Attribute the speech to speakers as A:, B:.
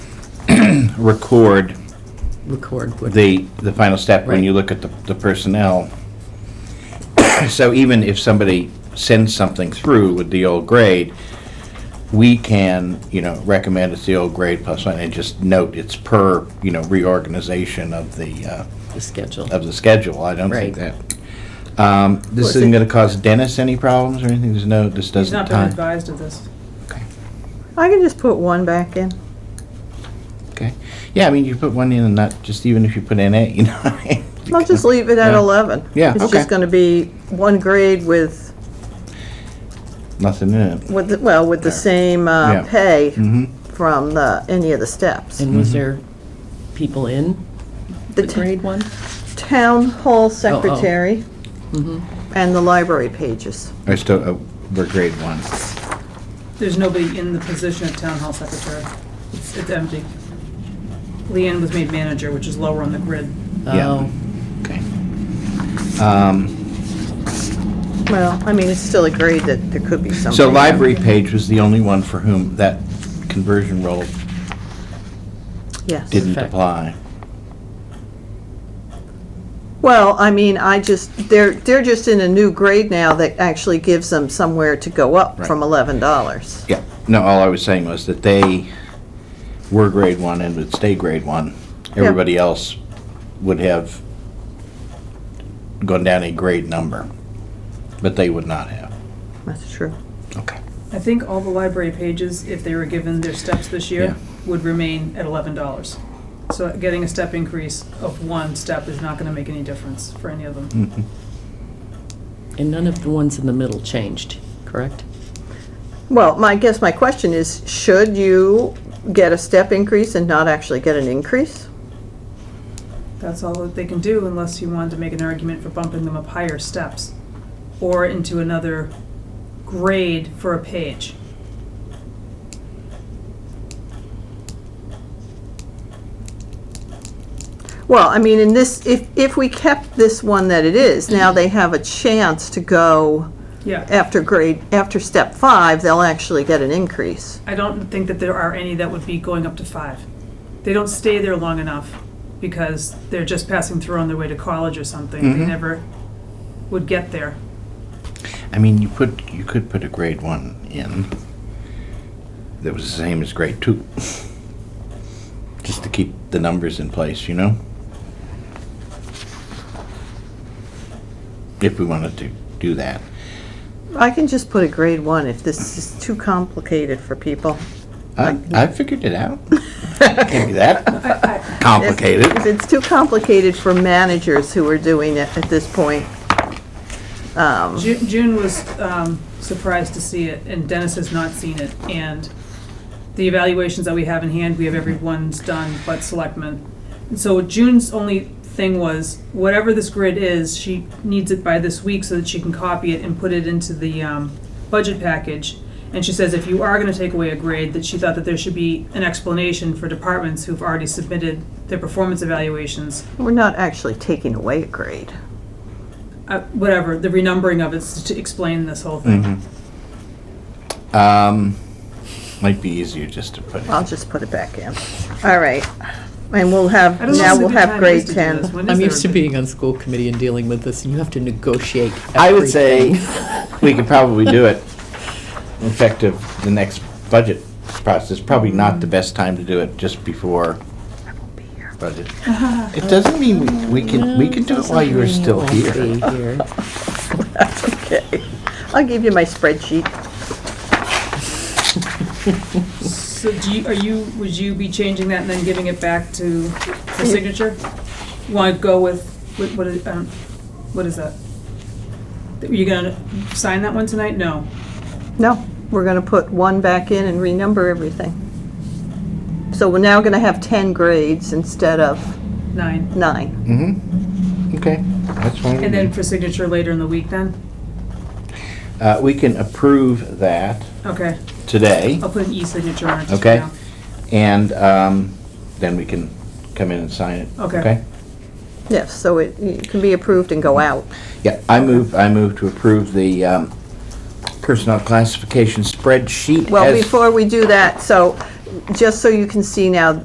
A: record
B: record what
A: the, the final step when
B: Right.
A: you look at the, the personnel. So even if somebody sends something through with the old grade, we can, you know, recommend it's the old grade plus one, and just note it's per, you know, reorganization of the, uh,
B: the schedule.
A: of the schedule. I don't think that.
B: Right.
A: Um,
B: Well,
A: This
B: is
A: isn't
B: it-
A: gonna cause Dennis any problems or anything? There's no, this
C: He's
A: doesn't
C: not been
A: tie?
C: advised of this.
A: Okay.
D: I can just put one back in.
A: Okay. Yeah, I mean, you put one in and not, just even if you put in A, you know?
D: I'll just leave it at
A: Yeah.
D: 11.
A: Yeah,
D: It's
A: okay.
D: just going to be one grade with,
A: Nothing in it.
D: with, the- well, with the same
A: Yeah.
D: uh, pay
A: Mhm.
D: from the, any of the steps.
B: And was there people in the
D: The t-
B: grade one?
D: town
A: Oh,
D: hall secretary
B: Mm-hmm.
D: and the library pages.
A: I still, uh, we're grade one.
C: There's nobody in the position of town hall secretary. It's, it's empty. Leanne was made manager, which is lower on the grid.
A: Yeah.
B: Oh,
A: Okay. Um,
D: Well, I mean, it's still a grade that there could be something.
A: So library page was the only one for whom that conversion rule
D: Yes.
A: didn't
B: Perfect.
A: apply.
D: Well, I mean, I just, they're, they're just in a new grade now that actually gives them somewhere to go up
A: Right.
D: from $11.
A: Yeah, no, all I was saying was that they were grade one and would stay grade one. Everybody else would have gone down a grade number, but they would not have.
D: That's true.
A: Okay.
C: I think all the library pages, if they were given their steps this
A: Yeah.
C: year, would remain at eleven dollars. So getting a step increase of one step is not gonna make any difference for any of them.
B: and none of the ones in the middle changed, correct?
D: Well, my, I guess my question is, should you get a step increase and not actually get an increase?
C: That's all that they can do unless you wanted to make an argument for bumping them up higher steps or into another grade for a page.
D: Well, I mean, in this, if, if we kept this one that it is, now they have a chance to go
C: Yeah.
D: after grade, after step five, they'll actually get an increase.
C: I don't think that there are any that would be going up to five. They don't stay there long enough because they're just passing through on their way to college or something. They never would get there.
A: I mean, you put, you could put a grade one in that was the same as grade two. Just to keep the numbers in place, you know? If we wanted to do that.
D: I can just put a grade one if this is too complicated for people.
A: I, I figured it out. Can't be that complicated.
D: If it's too complicated for managers who are doing it at this point.
C: Ju- June was um, surprised to see it, and Dennis has not seen it. And the evaluations that we have in hand, we have everyone's done but selectmen. And so June's only thing was, whatever this grid is, she needs it by this week so that she can copy it and put it into the um, budget package. And she says if you are gonna take away a grade, that she thought that there should be an explanation for departments who've already submitted their performance evaluations
D: We're not actually taking away a grade.
C: uh, whatever, the renumbering of it is to explain this whole thing.
A: Um, might be easier just to put it.
D: I'll just put it back in. All right. And we'll have,
C: I don't know
D: now
C: when the
D: we'll
C: good
D: have
C: time is
D: grade
C: to do this.
D: 10.
C: When is
B: I'm
C: there
B: used to
C: a-
B: being on school committee and dealing with this, and you have to negotiate
A: I would say
B: everything.
A: we could probably do it effective the next budget process. Probably not the best time to do it just before budget. It doesn't mean we we can, we can do it while you're still
B: Won't
A: here.
B: be here.
D: Okay. I'll give you my spreadsheet.
C: So do you, are you, would you be changing that and then giving it back to the signature? Want to go with, with- what is, um, what is that? Are you gonna sign that one tonight? No.
D: No, we're going to put one back in and renumber everything. So we're now going to have 10 grades instead of
C: Nine.
D: nine.
A: Mm-hmm. Okay, that's fine.
C: And then for signature later in the week then?
A: Uh, we can approve that
C: Okay,
A: today,
C: I'll put an e-signature on it just for
A: okay?
C: now.
A: And, um, then we can come in and sign it.
C: Okay.
D: Yes, so it it can be approved and go out.
A: Yeah, I move, I move to approve the um, personnel classification spreadsheet
D: Well,
A: as
D: before we do that, so, just so you can see now,